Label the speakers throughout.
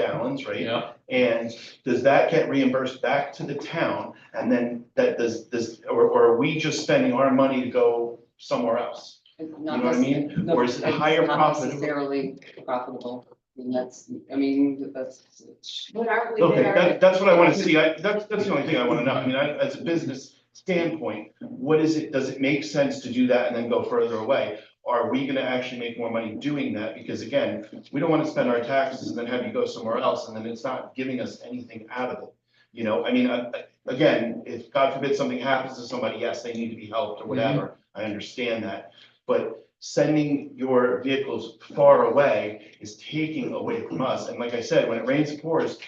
Speaker 1: gallons, right?
Speaker 2: Yeah,
Speaker 1: And does that get reimbursed back to the town? And then that does, this, or, or are we just spending our money to go somewhere else?
Speaker 3: Not
Speaker 1: know what I mean?
Speaker 3: necess- no,
Speaker 1: Or is it
Speaker 3: it's
Speaker 1: higher
Speaker 3: not
Speaker 1: profitable?
Speaker 3: Necessarily profitable, and that's, I mean, that's,
Speaker 4: But aren't we
Speaker 1: Okay,
Speaker 4: there?
Speaker 1: that, that's what I want to see. I, that's, that's the only thing I want to know. I mean, I, as a business standpoint, what is it, does it make sense to do that and then go further away? Are we gonna actually make more money doing that? Because again, we don't want to spend our taxes and then have you go somewhere else and then it's not giving us anything out of it. You know, I mean, I- I- again, if God forbid something happens to somebody, yes, they need to be helped or whatever. I understand that. But sending your vehicles far away is taking away from us. And like I said, when it rains and pours,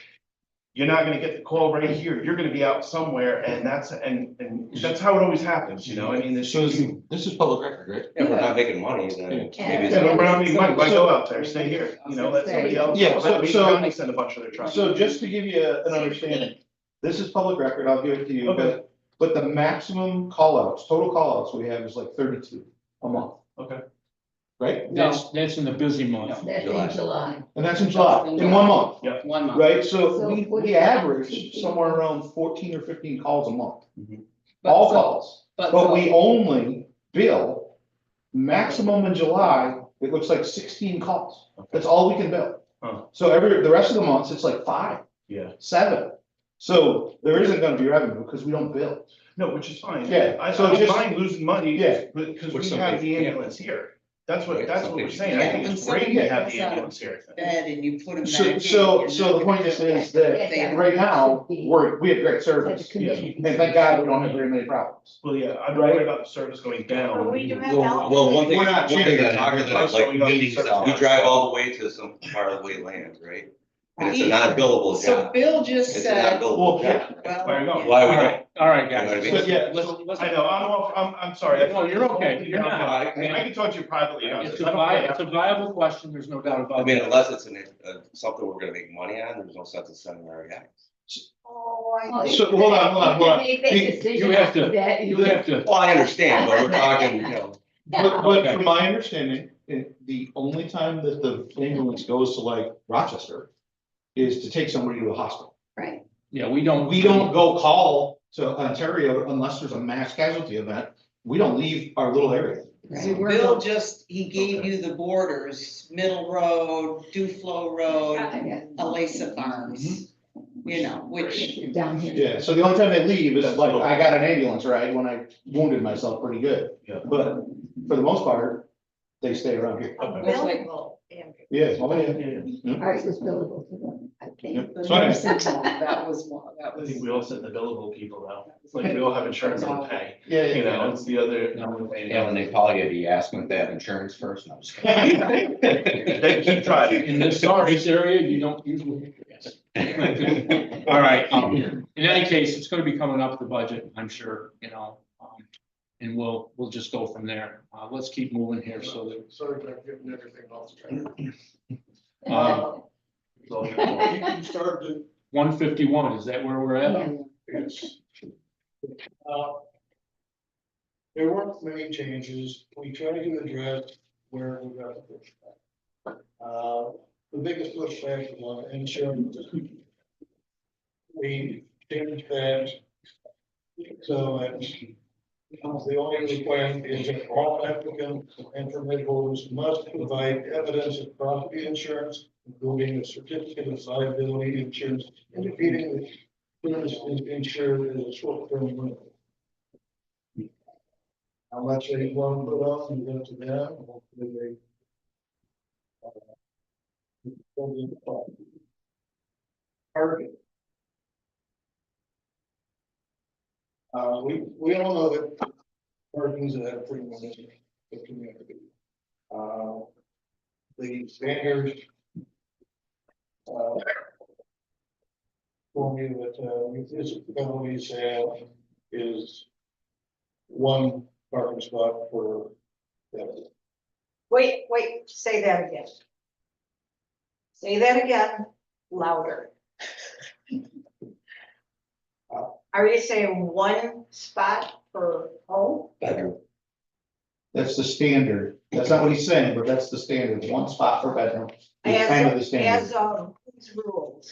Speaker 1: you're not gonna get the call right here, you're gonna be out somewhere, and that's, and, and that's how it always happens, you know, I mean, this.
Speaker 2: so this is, this is public record, right?
Speaker 5: If we're not making money, then maybe
Speaker 1: Yeah,
Speaker 5: it's.
Speaker 1: but we're not making money, why go out there, stay here, you know, let somebody else,
Speaker 6: Yeah, so-
Speaker 1: let Lee
Speaker 6: so-
Speaker 1: County send a bunch of their trucks.
Speaker 6: So just to give you an understanding, this is public record, I'll give it to you,
Speaker 1: Okay.
Speaker 6: but, but the maximum callouts, total callouts we have is like thirty-two a month.
Speaker 1: Okay.
Speaker 6: Right?
Speaker 2: That's, that's in the busy month.
Speaker 4: That's in July.
Speaker 6: And that's in July, in one month,
Speaker 3: one month.
Speaker 6: right?
Speaker 4: So
Speaker 6: So we,
Speaker 4: what
Speaker 6: we
Speaker 4: is that?
Speaker 6: average somewhere around fourteen or fifteen calls a month,
Speaker 3: But
Speaker 6: all
Speaker 3: so-
Speaker 6: calls. But we only bill maximum in July, it looks like sixteen calls. That's all we can bill.
Speaker 1: Huh.
Speaker 6: So every, the rest of the months, it's like five,
Speaker 1: Yeah,
Speaker 6: seven. So there isn't gonna be revenue because we don't bill.
Speaker 1: no, which is fine,
Speaker 6: Yeah,
Speaker 1: I, so
Speaker 6: so
Speaker 1: I'm
Speaker 6: just-
Speaker 1: fine losing money,
Speaker 6: Yeah.
Speaker 1: but, because
Speaker 5: Or
Speaker 1: we
Speaker 5: something,
Speaker 1: have the
Speaker 5: yeah.
Speaker 1: ambulance here. That's what,
Speaker 5: Yeah,
Speaker 1: that's what we're saying,
Speaker 5: something.
Speaker 1: I think
Speaker 7: Yeah,
Speaker 1: it's
Speaker 7: when
Speaker 1: great to
Speaker 7: somebody
Speaker 1: have the
Speaker 7: gets out
Speaker 1: ambulance here.
Speaker 7: bed and you put them back
Speaker 6: So,
Speaker 7: in.
Speaker 6: so,
Speaker 7: you're
Speaker 6: so the
Speaker 7: not gonna-
Speaker 6: point just is that
Speaker 7: They-
Speaker 6: right now, we're, we have great
Speaker 4: That's
Speaker 6: service.
Speaker 4: a commission.
Speaker 6: And thank God we don't have very many problems.
Speaker 1: Well, yeah, I'm worried about the service going down.
Speaker 4: But we do have
Speaker 5: Well, well, one thing,
Speaker 6: We're
Speaker 5: one
Speaker 6: not
Speaker 5: thing
Speaker 6: changing
Speaker 5: I'm talking
Speaker 1: that.
Speaker 5: about, like,
Speaker 1: Showing up
Speaker 5: meetings,
Speaker 1: service.
Speaker 5: we drive all the way to some far away land, right? And it's a non-billable
Speaker 7: So
Speaker 5: job.
Speaker 7: Bill just
Speaker 5: It's a non
Speaker 7: said,
Speaker 5: billable job.
Speaker 3: uh,
Speaker 1: Where you
Speaker 7: well,
Speaker 1: going?
Speaker 5: Why
Speaker 2: All
Speaker 5: we
Speaker 2: right, all right, guys.
Speaker 5: You know
Speaker 6: what I mean?
Speaker 2: Yeah, let's- let's-
Speaker 1: I know, I'm, off- I'm, I'm sorry. I-
Speaker 2: No, you're okay, you're not.
Speaker 1: I can talk to you privately. about
Speaker 2: It's
Speaker 1: this.
Speaker 2: a
Speaker 1: I don't
Speaker 2: vi-
Speaker 1: care.
Speaker 2: it's a viable question, there's no doubt about it.
Speaker 5: I mean, unless it's an, uh, something we're gonna make money on, there's no sense in sending our guys.
Speaker 7: oh, I
Speaker 6: So, hold on, hold on, hold on.
Speaker 4: They make a decision
Speaker 2: You have to-
Speaker 4: after that.
Speaker 2: You have to,
Speaker 5: Well, I understand, but we're talking, you know,
Speaker 6: But, but from my understanding, it- the only time that the ambulance goes to like Rochester is to take somebody to a hospital.
Speaker 4: Right.
Speaker 2: yeah, we don't.
Speaker 6: We don't go call to Ontario unless there's a mass casualty event. We don't leave our little area.
Speaker 4: Right.
Speaker 7: Bill just, he gave
Speaker 1: Okay.
Speaker 7: you the borders, Middle Road, Duflo Road, Alisa Farms, you know, which,
Speaker 4: Down here.
Speaker 6: Yeah, so the only time they leave is like, I got an ambulance ride when I wounded myself pretty good.
Speaker 1: Yeah.
Speaker 6: But for the most part, they stay around here.
Speaker 1: Okay.
Speaker 4: Available, Andrew.
Speaker 6: Yeah. oh,
Speaker 1: Yeah,
Speaker 6: yeah.
Speaker 1: yeah, yeah.
Speaker 4: Ours was billable to them, I think.
Speaker 3: The
Speaker 6: So anyway.
Speaker 3: nursing home, That was one, that
Speaker 1: I
Speaker 3: was.
Speaker 1: think we all send the billable people out,
Speaker 3: that was-
Speaker 1: It's like we all have insurance on pay,
Speaker 6: Yeah, yeah,
Speaker 1: you
Speaker 6: yeah.
Speaker 1: know, it's the other.
Speaker 8: And when they call you, do you ask them if they have insurance first? No, I'm just kidding.
Speaker 1: They keep trying.
Speaker 2: In this service area, you don't usually. All right, um, in any case, it's gonna be coming up the budget, I'm sure, you know, um, and we'll, we'll just go from there. Uh, let's keep moving here, so that
Speaker 9: Sorry, I've given everything off the track.
Speaker 2: Um,
Speaker 6: Uh,
Speaker 9: You started,
Speaker 2: one fifty-one, is that where we're at?
Speaker 4: Yeah.
Speaker 9: yes. Uh, There weren't many changes, we tried to address where we got the pushback. Uh, The biggest pushback was on insurance. We changed that. So that the only requirement is that all applicants and permit holders must provide evidence of property insurance, including a certificate of liability insurance indicating that Insurance is insured as a short-term rental. How much they want to put up, you go to them, hopefully they. uh, don't get the problem. Target. Uh, we, we all know that parking's a premium in the community. Uh, the standard. Uh, for me that uh, municipalities have is one parking spot for that.
Speaker 4: Wait, wait, say that again. Say that again, louder. Are you saying one spot per home?
Speaker 5: better.
Speaker 6: That's the standard. That's not what he's saying, but that's the standard. One spot per bedroom. is
Speaker 4: As
Speaker 6: kind of the
Speaker 4: As um,
Speaker 6: standard.
Speaker 4: of
Speaker 7: these rules.